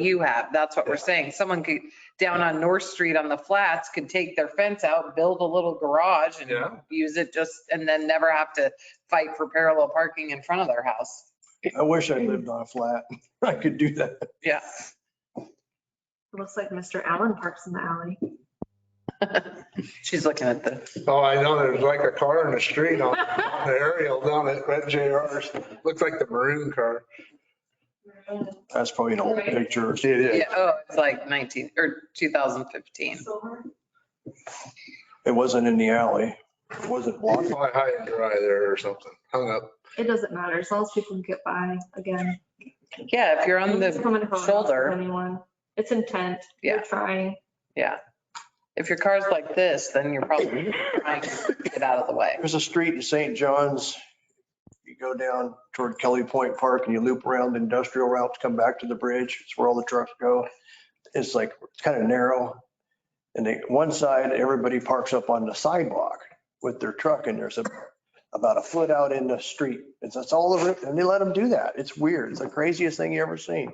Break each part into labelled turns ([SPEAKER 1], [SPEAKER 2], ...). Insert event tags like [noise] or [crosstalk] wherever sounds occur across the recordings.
[SPEAKER 1] you have. That's what we're saying. Someone could, down on North Street on the flats, could take their fence out, build a little garage and
[SPEAKER 2] Yeah.
[SPEAKER 1] use it just, and then never have to fight for parallel parking in front of their house.
[SPEAKER 3] I wish I lived on a flat. [laughs] I could do that.
[SPEAKER 1] Yeah.
[SPEAKER 4] Looks like Mr. Allen parks in the alley.
[SPEAKER 1] She's looking at the,
[SPEAKER 2] Oh, I know, there's like a car in the street on on the aerial down at Red JR's. Looks like the maroon car.
[SPEAKER 3] That's probably an old picture.
[SPEAKER 2] It is.
[SPEAKER 1] yeah, oh, it's like 19, or 2015.
[SPEAKER 3] It wasn't in the alley. It wasn't blocked.
[SPEAKER 2] Fly high and dry there or something, hung up.
[SPEAKER 4] It doesn't matter, as long as people can get by, again.
[SPEAKER 1] Yeah, if you're on
[SPEAKER 4] It's coming
[SPEAKER 1] the
[SPEAKER 4] across with
[SPEAKER 1] shoulder,
[SPEAKER 4] Anyone, it's intent,
[SPEAKER 1] Yeah.
[SPEAKER 4] you're trying.
[SPEAKER 1] if your car's like this, then you're probably trying to get out of the way.
[SPEAKER 3] There's a street in St. John's. You go down toward Kelly Point Park and you loop around the industrial route to come back to the bridge. It's where all the trucks go. It's like, it's kind of narrow. And they, one side, everybody parks up on the sidewalk with their truck and there's a, about a foot out in the street. It's, that's all over, it, and they let them do that. It's weird. It's the craziest thing you ever seen.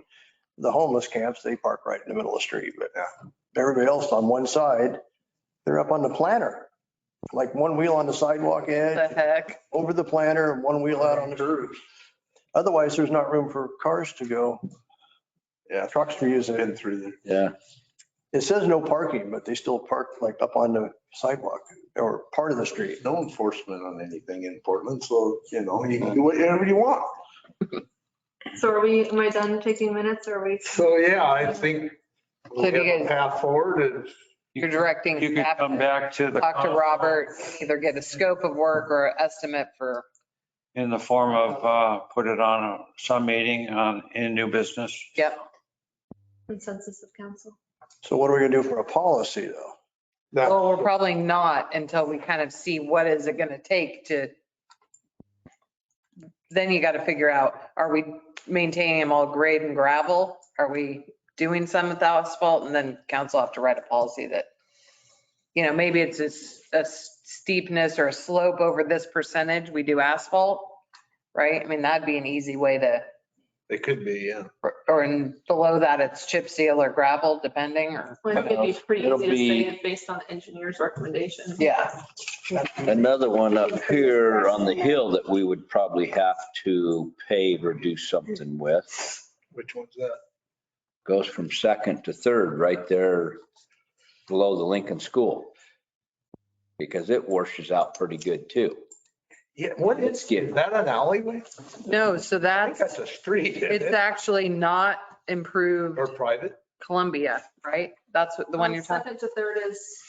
[SPEAKER 3] The homeless camps, they park right in the middle of the street, but uh, everybody else on one side, they're up on the planter. Like one wheel on the sidewalk edge
[SPEAKER 1] The heck?
[SPEAKER 3] over the planter and one wheel out on the curb. Otherwise, there's not room for cars to go. Yeah, trucks are using it.
[SPEAKER 2] through there.
[SPEAKER 5] Yeah,
[SPEAKER 3] It says no parking, but they still park like up on the sidewalk or part of the street.
[SPEAKER 2] No enforcement on anything in Portland, so, you know, you can do whatever you want.
[SPEAKER 4] So are we, am I done taking minutes or are we?
[SPEAKER 2] So, yeah, I think we
[SPEAKER 1] So
[SPEAKER 2] have
[SPEAKER 1] do you
[SPEAKER 2] a
[SPEAKER 1] guys-
[SPEAKER 2] path forward and
[SPEAKER 1] You're directing
[SPEAKER 6] You could
[SPEAKER 1] staff
[SPEAKER 6] come back to the.
[SPEAKER 1] talk to Robert, either get a scope of work or an estimate for,
[SPEAKER 6] In the form of, uh, put it on a, some meeting on, in new business.
[SPEAKER 1] yep.
[SPEAKER 4] Consensus of council.
[SPEAKER 3] So what are we gonna do for a policy though?
[SPEAKER 2] that,
[SPEAKER 1] Well, we're probably not until we kind of see what is it going to take to, then you got to figure out, are we maintaining them all grade and gravel? Are we doing some with asphalt? And then council have to write a policy that, you know, maybe it's a s- a steepness or a slope over this percentage, we do asphalt, right? I mean, that'd be an easy way to,
[SPEAKER 2] it could be, yeah.
[SPEAKER 1] or in below that, it's chip seal or gravel, depending, or,
[SPEAKER 4] Well, I think it'd be pretty
[SPEAKER 5] It'll
[SPEAKER 4] easy to say
[SPEAKER 5] be-
[SPEAKER 4] it based on the engineer's recommendation.
[SPEAKER 1] yeah.
[SPEAKER 5] another one up here on the hill that we would probably have to pave or do something with.
[SPEAKER 2] Which one's that?
[SPEAKER 5] Goes from second to third, right there below the Lincoln School. Because it washes out pretty good too.
[SPEAKER 2] Yeah, what is, is that an alleyway?
[SPEAKER 1] No, so
[SPEAKER 2] I think
[SPEAKER 1] that's.
[SPEAKER 2] that's a street, isn't
[SPEAKER 1] It's
[SPEAKER 2] it?
[SPEAKER 1] actually not improved
[SPEAKER 2] Or private?
[SPEAKER 1] Columbia, right? That's what- the one you're talking,
[SPEAKER 4] Second to third is.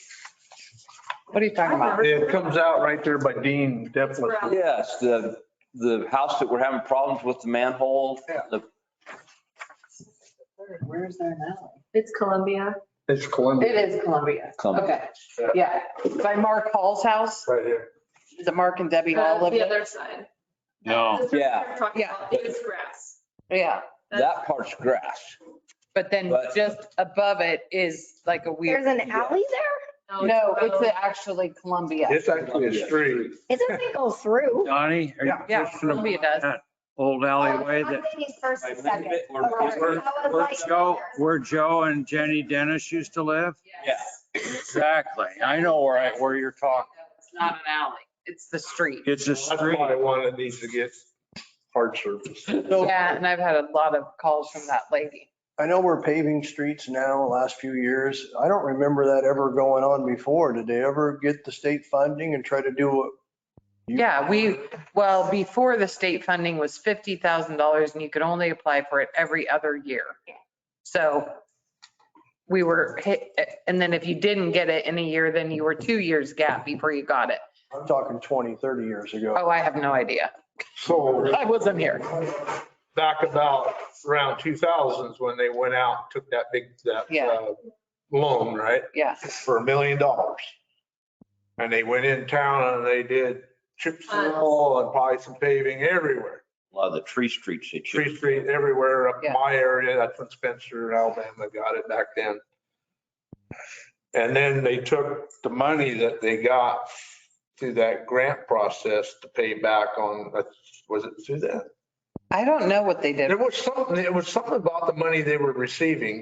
[SPEAKER 1] what are you talking about?
[SPEAKER 2] It comes out right there by Dean Deplin.
[SPEAKER 4] Brown.
[SPEAKER 5] Yes, the, the house that we're having problems with the manhole,
[SPEAKER 2] Yeah.
[SPEAKER 5] the
[SPEAKER 1] Where's there now?
[SPEAKER 4] It's Columbia.
[SPEAKER 2] It's Columbia,
[SPEAKER 1] It is Columbia.
[SPEAKER 5] clump.
[SPEAKER 1] Okay, yeah. By Mark Hall's house,
[SPEAKER 2] right here.
[SPEAKER 1] the Mark and Debbie Hall
[SPEAKER 4] Uh,
[SPEAKER 1] live
[SPEAKER 4] The
[SPEAKER 1] there.
[SPEAKER 4] other side.
[SPEAKER 6] No.
[SPEAKER 4] That's what
[SPEAKER 5] Yeah.
[SPEAKER 4] we're Talking
[SPEAKER 1] Yeah.
[SPEAKER 4] about, it's grass.
[SPEAKER 1] Yeah,
[SPEAKER 4] That's-
[SPEAKER 5] That part's grass.
[SPEAKER 1] but then
[SPEAKER 5] But-
[SPEAKER 1] just above it is like a weird,
[SPEAKER 7] There's an alley there?
[SPEAKER 1] no, it's
[SPEAKER 4] road.
[SPEAKER 1] actually Columbia.
[SPEAKER 2] It's actually a street.
[SPEAKER 7] It doesn't go through.
[SPEAKER 6] Donnie? are you
[SPEAKER 1] Yeah,
[SPEAKER 6] just gonna-
[SPEAKER 1] Columbia does.
[SPEAKER 6] that Old alleyway that,
[SPEAKER 7] I'm thinking first and second.
[SPEAKER 5] We're-
[SPEAKER 7] Okay.
[SPEAKER 5] we're-
[SPEAKER 7] I was
[SPEAKER 6] where
[SPEAKER 7] like-
[SPEAKER 6] Joe, where Joe and Jenny Dennis used to live?
[SPEAKER 4] Yes.
[SPEAKER 6] Exactly. I know where I, where you're talking.
[SPEAKER 1] It's not an alley, it's the street.
[SPEAKER 6] It's a
[SPEAKER 2] That's why
[SPEAKER 6] street.
[SPEAKER 2] I want it needs to get hard surface.
[SPEAKER 1] Yeah, and I've had a lot of calls from that lady.
[SPEAKER 3] I know we're paving streets now, the last few years. I don't remember that ever going on before. Did they ever get the state funding and try to do what? you-
[SPEAKER 1] Yeah, we, well, before the state funding was fifty thousand dollars and you could only apply for it every other year. So we were hit, and then if you didn't get it in a year, then you were two years gap before you got it.
[SPEAKER 3] I'm talking 20, 30 years ago.
[SPEAKER 1] Oh, I have no idea.
[SPEAKER 2] So
[SPEAKER 1] I wasn't here.
[SPEAKER 2] back about around 2000s when they went out, took that big, that
[SPEAKER 1] Yeah.
[SPEAKER 2] uh, loan, right?
[SPEAKER 1] Yeah.
[SPEAKER 2] For a million dollars. And they went in town and they did chip seal and probably some paving everywhere.
[SPEAKER 5] A lot of the tree streets that you.
[SPEAKER 2] Tree Street everywhere up in
[SPEAKER 1] Yeah.
[SPEAKER 2] my area. That's when Spencer, in Alabama got it back then. And then they took the money that they got through that grant process to pay back on, was it through that?
[SPEAKER 1] I don't know what they did.
[SPEAKER 2] There was something, it was something about the money they were receiving